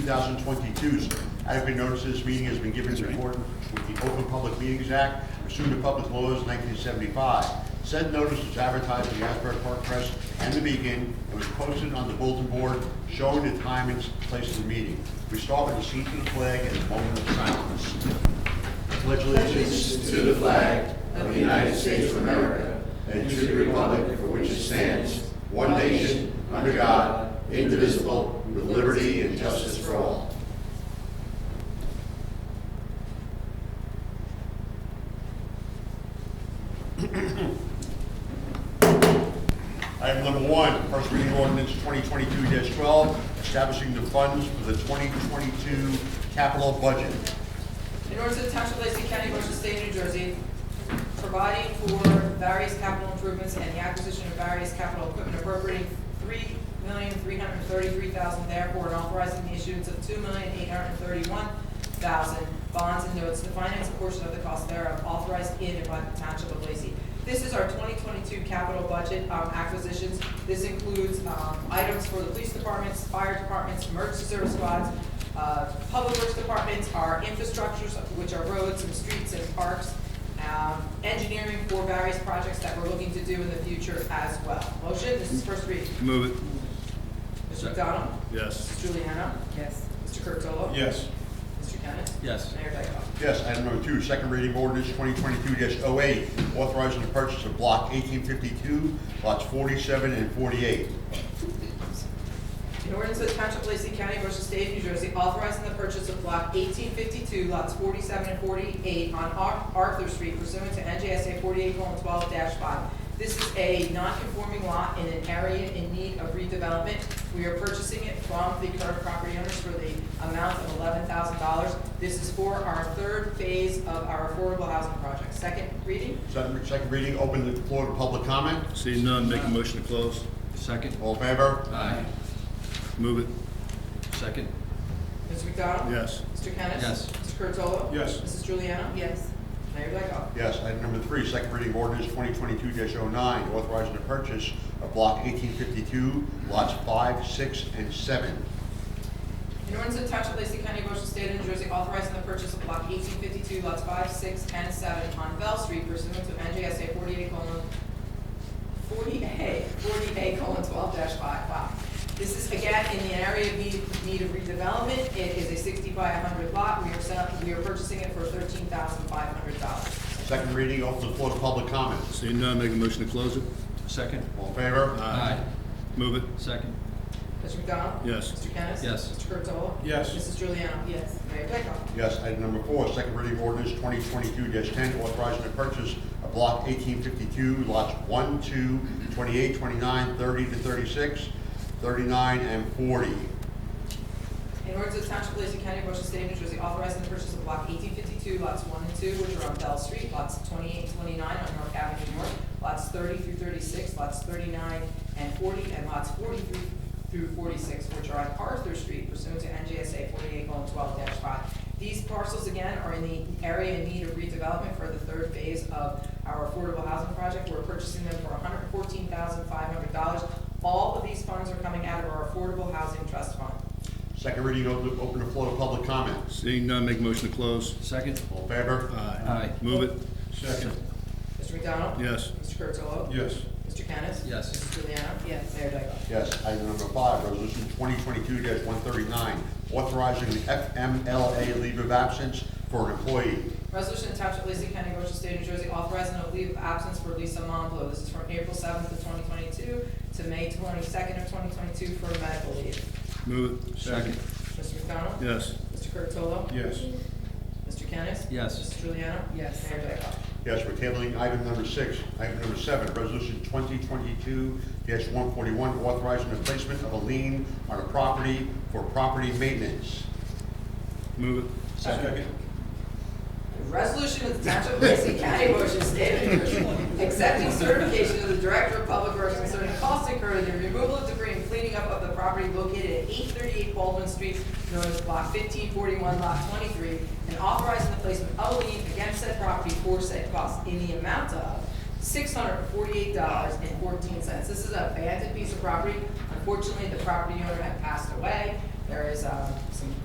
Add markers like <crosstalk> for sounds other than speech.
2022's adequate notice of this meeting has been given in accordance with the Open Public Meetings Act pursuant to public laws 1975. Said notice was advertised in the Asbury Park Press and the Beacon and was posted on the bulletin board showing the time and place of the meeting. We start with the seat to the flag and a moment of silence. Pledge allegiance allegiance to the flag of the United States of America and to the republic for which it stands, one nation, under God, indivisible, with liberty and justice for all. <clears throat> Item number one, first reading ordinance 2022-12, establishing the funds for the 2022 capital budget. In order to the Township of Lacey County, Ocean State, New Jersey, providing for various capital improvements and the acquisition of various capital equipment appropriating three million, three hundred and thirty-three thousand therefore, and authorizing the issuance of two million, eight hundred and thirty-one thousand bonds and notes to finance a portion of the cost thereof authorized in and by the Township of Lacey. This is our twenty twenty-two capital budget, um, acquisitions. This includes, um, items for the police departments, fire departments, emergency service squads, uh, Public Works Departments, our infrastructures, which are roads and streets and parks, um, engineering for various projects that we're looking to do in the future as well. Motion, this is first reading. Move it. Mr. McDonald? Yes. Mrs. Juliana? Yes. Mr. Curatolo? Yes. Mr. Kennis? Yes. Mayor Dyckoff? Yes, item number two, second reading ordinance twenty twenty-two 8 authorizing the purchase of block eighteen fifty-two, lots forty-seven and forty-eight. In order to the Township of Lacey County, Ocean State, New Jersey, authorizing the purchase of block eighteen fifty-two, lots forty-seven and forty-eight on Ar- Arthur Street pursuant to NJSA forty-eight twelve five. This is a non-conforming lot in an area in need of redevelopment. We are purchasing it from the current property owners for the amount of eleven thousand dollars. This is for our third phase of our affordable housing project. Second reading? Second, second reading, open the floor to public comment. See none, make a motion to close. Second. All in favor? Aye. Move it. Second. Mr. McDonald? Yes. Mr. Kennis? Yes. Mr. Curatolo? Yes. Mrs. Juliana? Yes. Mayor Dyckoff? Yes, item number three, second reading ordinance twenty twenty-two 9 authorizing the purchase of block eighteen fifty-two, lots five, six, and seven. In order to the Township of Lacey County, Ocean State of New Jersey, authorizing the purchase of block eighteen fifty-two, lots five, six, and seven on Bell Street pursuant to NJSA forty-eight colon, forty A, forty A colon twelve dash five, wow. This is again in the area of need, need of redevelopment, it is a sixty by hundred lot, we are selling, we are purchasing it for thirteen thousand five hundred dollars. Second reading, open the floor to public comment. See none, make a motion to close it. Second. All in favor? Aye. Move it. Second. Mr. McDonald? Yes. Mr. Kennis? Yes. Mr. Curatolo? Yes. Mrs. Juliana? Yes. Mayor Dyckoff? Yes, item number four, second reading ordinance twenty twenty-two ten, authorizing the purchase of block eighteen fifty-two, lots 1, 2, 28, 29, 30 to 36, 39, and forty. In order to the Township of Lacey County, Ocean State, New Jersey, authorizing the purchase of block eighteen fifty-two, lots one and two, which are on Bell Street, lots 28 and 29 on North Avenue North, lots thirty through thirty-six, lots thirty-nine and forty, and lots forty-three through forty-six, which are on Arthur Street pursuant to NJSA forty-eight twelve five. These parcels, again, are in the area in need of redevelopment for the third phase of our affordable housing project. We're purchasing them for hundred and fourteen thousand five hundred dollars. All of these funds are coming out of our Affordable Housing Trust Fund. Second reading, open, open the floor to public comment. Seeing none, make a motion to close. Second. All in favor? Aye. Move it. Second. Mr. McDonald? Yes. Mr. Curatolo? Yes. Mr. Kennis? Yes. Mrs. Juliana? Yes. Mayor Dyckoff? Yes, item number five, resolution twenty twenty-two one thirty-nine, authorizing the FMLA leave of absence for an employee. Resolution to Township of Lacey County, Ocean State, New Jersey, authorizing a leave of absence for Lisa Monclo. This is from April seventh of twenty twenty-two to May twenty-second of twenty twenty-two for medical leave. Move it. Second. Mr. McDonald? Yes. Mr. Curatolo? Yes. Mr. Kennis? Yes. Mrs. Juliana? Yes. Mayor Dyckoff? Yes, we're tabling item number six. Item number seven, resolution twenty twenty-two one forty-one, authorizing the placement of a lien on a property for property maintenance. Move it. Second. Resolution of the Township of Lacey County, Ocean State, of New Jersey, accepting certification of the Director of Public Works concerning costs incurred in the removal of debris and cleaning up of the property located at eight thirty-eight Baldwin Street, known as block fifteen forty-one, lot twenty-three, and authorizing the placement of a lien against said property for said costs in the amount of six hundred and forty-eight dollars and fourteen cents. This is an abandoned piece of property. Unfortunately, the property owner had passed away. There is, um,